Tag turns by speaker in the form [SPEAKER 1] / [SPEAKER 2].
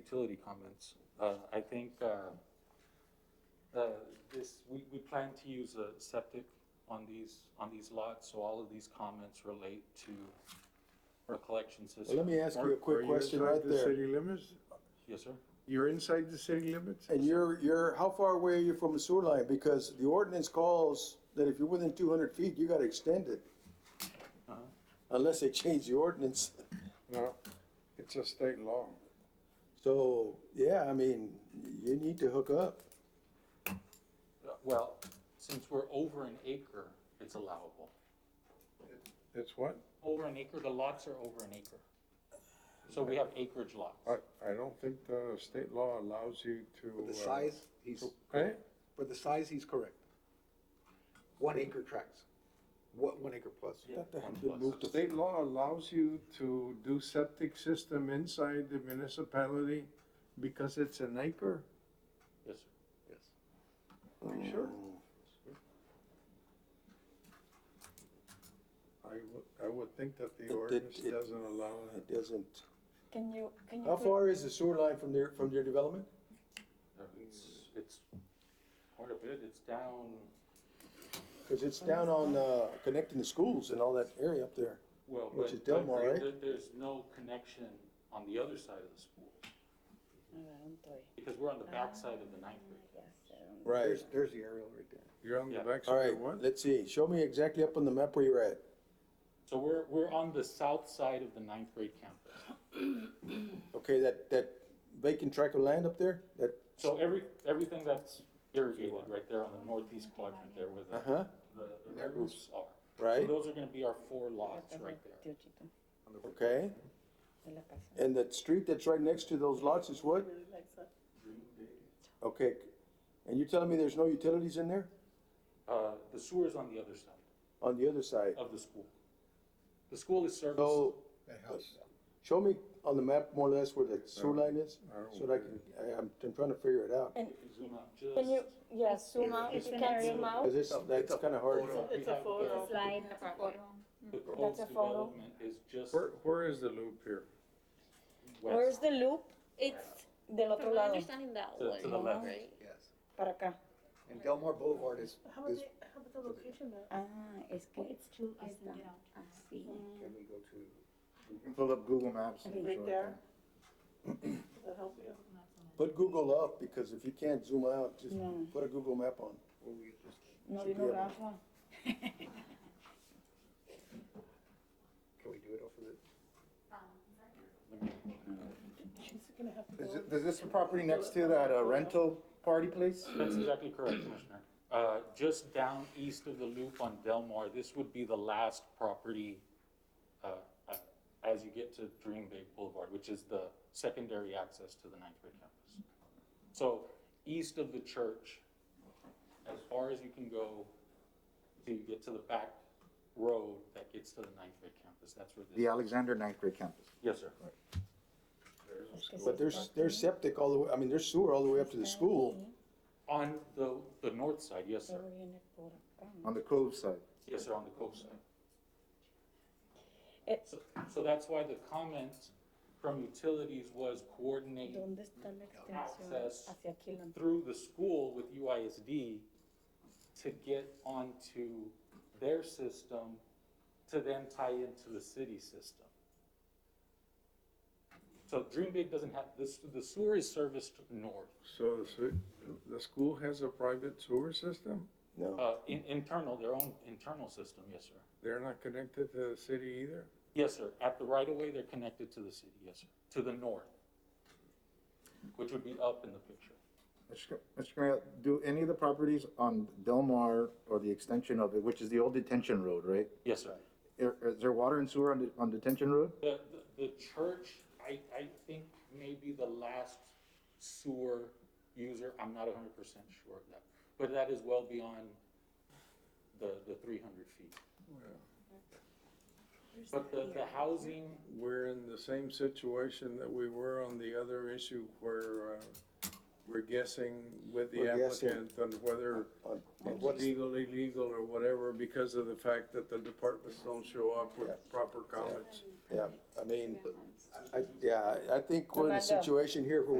[SPEAKER 1] utility comments. Uh, I think, uh, uh, this, we, we plan to use a septic on these, on these lots, so all of these comments relate to our collection
[SPEAKER 2] Well, let
[SPEAKER 1] system.
[SPEAKER 2] me ask you a
[SPEAKER 3] Mark, are
[SPEAKER 2] quick
[SPEAKER 3] you
[SPEAKER 2] question
[SPEAKER 3] inside
[SPEAKER 2] right
[SPEAKER 3] the
[SPEAKER 2] there.
[SPEAKER 3] City limits?
[SPEAKER 1] Yes, sir?
[SPEAKER 3] You're inside the city limits?
[SPEAKER 2] And you're, you're, how far away are you from the sewer line? Because the ordinance calls that if you're within two hundred feet, you gotta extend it.
[SPEAKER 1] Uh-huh.
[SPEAKER 2] Unless they change the ordinance.
[SPEAKER 3] No, it's a state law.
[SPEAKER 2] So, yeah, I mean, you need to hook up.
[SPEAKER 1] Uh, Well, since we're over an acre, it's allowable.
[SPEAKER 3] It's what?
[SPEAKER 1] Over an acre, the lots are over an acre. So we have acreage lots.
[SPEAKER 3] I, I don't think the state law allows you to.
[SPEAKER 4] For the
[SPEAKER 3] uh,
[SPEAKER 4] size, he's,
[SPEAKER 3] Eh?
[SPEAKER 4] for the size, he's correct. One acre tracts, what, one acre plus.
[SPEAKER 2] That
[SPEAKER 1] One
[SPEAKER 2] had been
[SPEAKER 1] plus.
[SPEAKER 2] moved to-
[SPEAKER 3] State law allows you to do septic system inside the municipality because it's an acre?
[SPEAKER 1] Yes, sir.
[SPEAKER 4] Yes.
[SPEAKER 2] Oh.
[SPEAKER 3] Are you sure? I would, I would think that
[SPEAKER 2] It-
[SPEAKER 3] the
[SPEAKER 2] it-
[SPEAKER 3] ordinance
[SPEAKER 2] it-
[SPEAKER 3] doesn't allow that.
[SPEAKER 2] It doesn't.
[SPEAKER 5] Can you, can you?
[SPEAKER 2] How
[SPEAKER 5] put-
[SPEAKER 2] far is the sewer line from their, from their development?
[SPEAKER 1] Uh, It's, it's quite a bit, it's down,
[SPEAKER 2] Cause it's down on, uh, connecting the schools and all that area up there.
[SPEAKER 1] well,
[SPEAKER 2] Which
[SPEAKER 1] but.
[SPEAKER 2] is Delmar,
[SPEAKER 1] but
[SPEAKER 2] right?
[SPEAKER 1] there- There's no connection on the other side of the school,
[SPEAKER 5] Around there.
[SPEAKER 1] because we're on the back
[SPEAKER 5] Ah.
[SPEAKER 1] side of the ninth grade.
[SPEAKER 5] Yes, around
[SPEAKER 2] Right.
[SPEAKER 4] There's, there's the aerial right there.
[SPEAKER 3] You're on the
[SPEAKER 1] Yeah.
[SPEAKER 2] All
[SPEAKER 3] backside
[SPEAKER 2] right,
[SPEAKER 3] of what?
[SPEAKER 2] let's see. Show me exactly up on the map where you're at.
[SPEAKER 1] So we're, we're on the south side of the ninth grade campus.
[SPEAKER 2] Okay, that, that vacant tract of land up there, that,
[SPEAKER 1] So every, everything that's irrigated right there on the northeast quadrant there where
[SPEAKER 2] uh-huh,
[SPEAKER 1] the, the- the roofs are. So
[SPEAKER 2] right?
[SPEAKER 1] those are gonna be our four lots
[SPEAKER 5] Casa
[SPEAKER 1] right
[SPEAKER 5] del
[SPEAKER 1] there.
[SPEAKER 5] tío Chico,
[SPEAKER 2] Okay,
[SPEAKER 5] de la casa.
[SPEAKER 2] and that street that's right next to those lots is what? Okay, and you're telling me there's no utilities in there?
[SPEAKER 1] Uh, the sewer's on the other side
[SPEAKER 2] On the other side?
[SPEAKER 1] of the school. The school is serviced,
[SPEAKER 2] So, show me on the map more or less where the sewer line is, so that I can, I, I'm, I'm trying to figure it out.
[SPEAKER 5] And
[SPEAKER 1] zoom out just.
[SPEAKER 5] can you, yes, zoom out, if you can zoom out,
[SPEAKER 2] Cause it's, that's kinda hard.
[SPEAKER 1] It's a photo.
[SPEAKER 5] slide,
[SPEAKER 1] The proposed
[SPEAKER 5] a photo.
[SPEAKER 1] development is just
[SPEAKER 3] Where, where is the loop here?
[SPEAKER 5] where's
[SPEAKER 1] west,
[SPEAKER 5] the loop? It's del otro
[SPEAKER 6] From my
[SPEAKER 5] lado,
[SPEAKER 6] understanding, that
[SPEAKER 1] To-
[SPEAKER 6] one.
[SPEAKER 1] to the left.
[SPEAKER 6] Right?
[SPEAKER 4] Yes.
[SPEAKER 5] para acá.
[SPEAKER 4] And Delmar Boulevard is,
[SPEAKER 7] How about
[SPEAKER 4] is,
[SPEAKER 7] the, how about the location though?
[SPEAKER 5] Ah, es que it's too, it's not, así.
[SPEAKER 4] can we go to,
[SPEAKER 8] Pull up Google Maps. and show
[SPEAKER 7] Right
[SPEAKER 8] it
[SPEAKER 7] there? Does that help you?
[SPEAKER 2] Put Google up, because if you can't zoom out, just
[SPEAKER 5] Yeah.
[SPEAKER 2] put a Google map on.
[SPEAKER 4] will we just,
[SPEAKER 5] No vino Rafa.
[SPEAKER 4] can we do it off of the?
[SPEAKER 7] She's gonna have to
[SPEAKER 8] Is
[SPEAKER 7] go.
[SPEAKER 8] it- Is this the property next to that uh, rental party place?
[SPEAKER 1] that's exactly correct, Commissioner. Uh, just down east of the loop on Delmar, this would be the last property, uh, uh, as you get to Dream Bay Boulevard, which is the secondary access to the ninth grade campus. So east of the church, as far as you can go, till you get to the back road that gets to the ninth grade campus, that's where this.
[SPEAKER 8] The Alexander ninth grade campus.
[SPEAKER 1] Yes, sir.
[SPEAKER 2] But there's, there's septic all the way, I mean, there's sewer all the way up to the school.
[SPEAKER 1] On the, the north side, yes, sir.
[SPEAKER 5] Pero viene por acá.
[SPEAKER 8] On the Cove side.
[SPEAKER 1] Yes, sir, on the coast side.
[SPEAKER 5] Eh,
[SPEAKER 1] So, so that's why the comment from utilities was coordinate
[SPEAKER 5] ¿Dónde está la
[SPEAKER 1] Access.
[SPEAKER 5] extensión? Hacia aquí la.
[SPEAKER 1] through the school with UISD to get onto their system to then tie into the city system. So Dream Big doesn't have, this, the sewer is serviced north,
[SPEAKER 3] So the, se- the school has a private sewer system?
[SPEAKER 2] No,
[SPEAKER 1] uh, in, internal, their own internal system, yes, sir.
[SPEAKER 3] They're not connected to the city either?
[SPEAKER 1] Yes, sir. At the right of way, they're connected to the city, yes, sir, to the north, which would be up in the picture.
[SPEAKER 8] Mr. Cr- Mr. Mayor, do any of the properties on Delmar or the extension of it, which is the old detention road, right?
[SPEAKER 1] Yes, sir.
[SPEAKER 8] Are- Is there water and sewer on, the- on detention road?
[SPEAKER 1] The, the, the church, I, I think maybe the last sewer user, I'm not hundred percent sure of that. But that is well beyond the, the three hundred feet. But the, the housing,
[SPEAKER 3] We're in the same situation that we were on the other issue where, uh, we're guessing with the
[SPEAKER 2] We're guessing.
[SPEAKER 3] applicant on whether
[SPEAKER 2] on, on
[SPEAKER 3] it's
[SPEAKER 2] what's,
[SPEAKER 3] legal, illegal, or whatever, because of the fact that the departments don't show up with
[SPEAKER 2] Yeah.
[SPEAKER 3] proper comments.
[SPEAKER 2] yeah, I mean, I, yeah, I- I think we're in a
[SPEAKER 5] Amanda.
[SPEAKER 2] situation here where